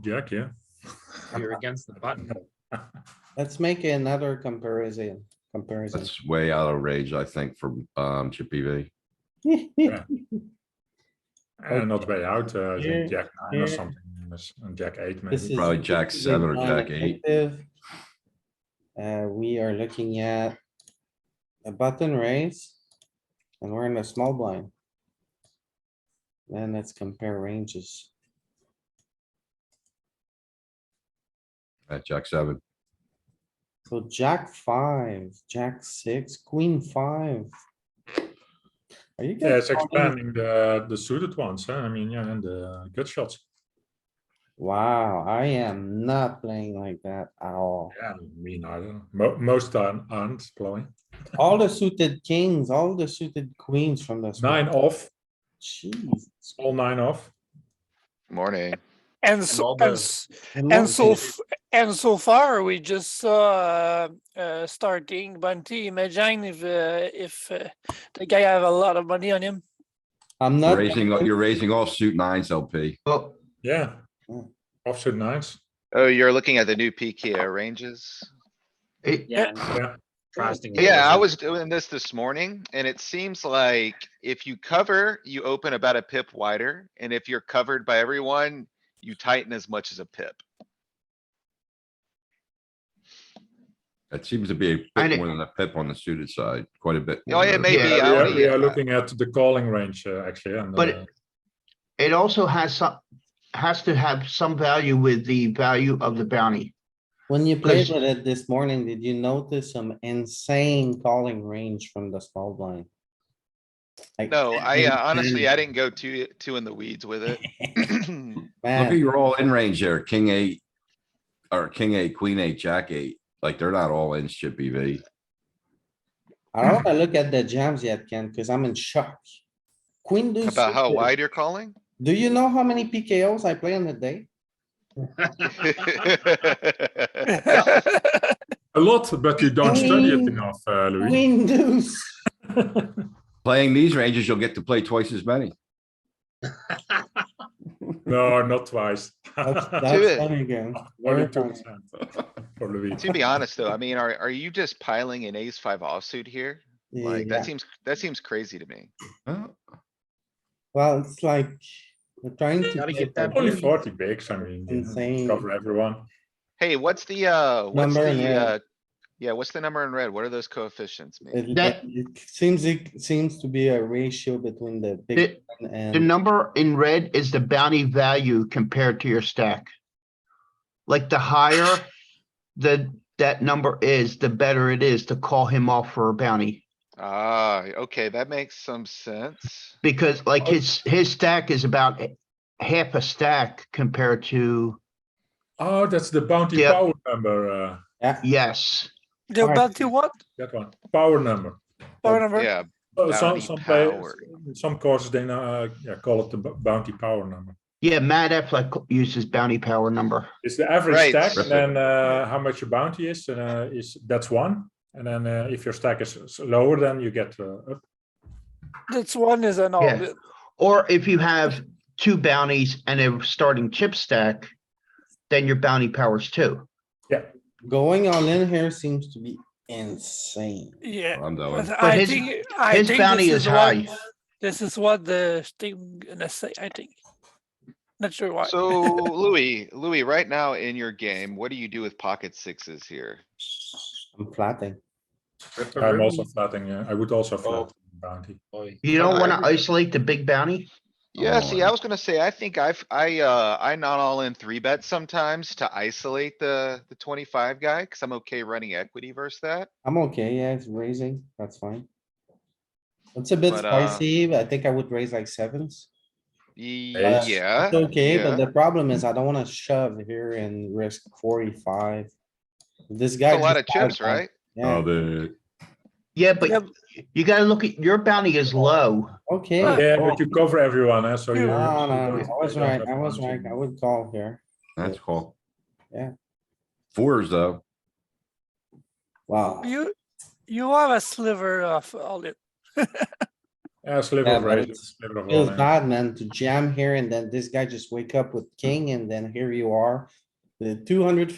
Jack, yeah. You're against the button. Let's make another comparison, comparison. That's way out of range, I think, from um Chippy V. And not way out, uh, I think Yeah, Jack nine or yeah. something, yes, and Jack eight This maybe. is Probably jack completely seven or jack eight. non-effective. Uh, we are looking at a button raise and we're in a small blind. Then let's compare ranges. At jack seven, So jack five, jack six, queen five. Are you Yeah, it's guys? calling- expanding the, the suited ones, huh? I mean, yeah, and the good shots. Wow, I am not playing like that at all. Yeah, me neither. Mo- most aren't, aren't blowing. All the suited kings, all the suited queens from this. one. Nine off, Jeez. all nine off. Morning. And so, all and, the- s- I and love so, this. f- and so far, we just saw, uh, uh, starting bounty. Imagine if, uh, if uh, the guy have a lot of money on him. I'm not. raising, you're raising offsuit nines LP. Oh, Yeah. Mm. Offsuit nines. you're looking at the new PKO ranges? Yeah. and Yeah. trusting it Yeah, I doesn't- was doing this this morning and it seems like if you cover, you open about a pip wider. And if you're covered by everyone, you tighten as much as a pip. That seems to be a I bit didn't- more than a pip on the suited side, quite a bit. Oh, more yeah, than a maybe. pip. Yeah, we are- only- We are looking at the calling range, uh, actually, and. But uh, It also has some, has to have some value with the value of the bounty. When you played Because- with it this morning, did you notice some insane calling range from the small blind? Like, No, I uh, honestly, I insane. didn't go too, too in the weeds with it. Look at Man, you're all in range there, king eight. Or king eight, queen eight, jack eight, like they're not all in Chippy V. I don't wanna look at the jams yet, Ken, cuz I'm in shock. Queen deuce. About how suited. wide you're calling? Do you know how many PKOs I play on a day? A lot, but you don't study it Queen. enough, uh, Louis. Queen deuce. Playing these ranges, you'll get to play twice as many. No, not twice. That's Do that's it. fun again. Only Very two fun. percent. For Louis. To be honest though, I mean, are, are you just piling an ace five offsuit here? Like, Yeah. that seems, that seems crazy to me. Huh? e-, Well, it's like, we're trying to. Gotta play get that for Only them. forty bigs, I mean, Insane. yeah, cover everyone. Hey, what's the, uh, what's Number in the, red. uh, yeah, what's the number in red? What are those coefficients mean? It That- it seems, it seems to be a ratio between the big The- one The and, number in red is the bounty value compared to your stack. Like the higher the, that number is, the better it is to call him off for a bounty. Ah, okay, that makes some sense. Because like his, his stack is about half a stack compared to, Oh, that's the bounty Yeah. power number, uh, yeah, yes. The Alright. bounty what? that one, power number. Power number? Yeah, Uh, Some, Bounty some players, power. some courses, they, uh, yeah, call it the bo- bounty power number. Yeah, Matt Affleck uses bounty power number. It's the average Right. stack, and Perfect. then uh, how much your bounty is, and uh, is that's one. And then uh, if your stack is s- lower, then you get uh, up. That's one is an Yeah. all. Or if you have two bounties and a starting chip stack, then your bounty powers two. going all in here seems to be insane. Yeah. I'm doing. But I his- think, I His think bounty this is is what, high. this is what the thing gonna say, I think. Not sure why. so Louis, Louis, right now in your game, what do you do with pocket sixes here? I'm flatting. I'm also flatting. Uh, I would also flat bounty. Boy, You don't I want to agree. isolate the big bounty? Yeah, see, I Oh. was gonna say, I think I've, I, uh, I not all in three bet sometimes to isolate the, the twenty-five guy, cuz I'm okay running equity versus that. I'm okay, yeah, it's raising, that's fine. It's a bit But, uh, spicy, but I think I would raise like sevens. Ye- Yeah. Yeah. It's okay, but Uh, yeah. the problem is I don't wanna shove here and risk forty-five. This guy. It's a lot just of chips, five-bet, right? Yeah, Oh, the, Yeah, Yeah, but you gotta look at, your bounty is low. okay. Yeah, Yeah, cool. but you cover everyone, eh, so you. Oh. No, no, you no, don't- I was you don't right, have I was bounty. right, I would call here. that's cool. Yeah. Fours though, Wow, You, you have a sliver of all it. Yeah, sliver Yeah, of but razor, it's- sliver of Feels walnut. bad, Oh, man, to jam here and then this guy just wake up with king and then here you are. The two hundred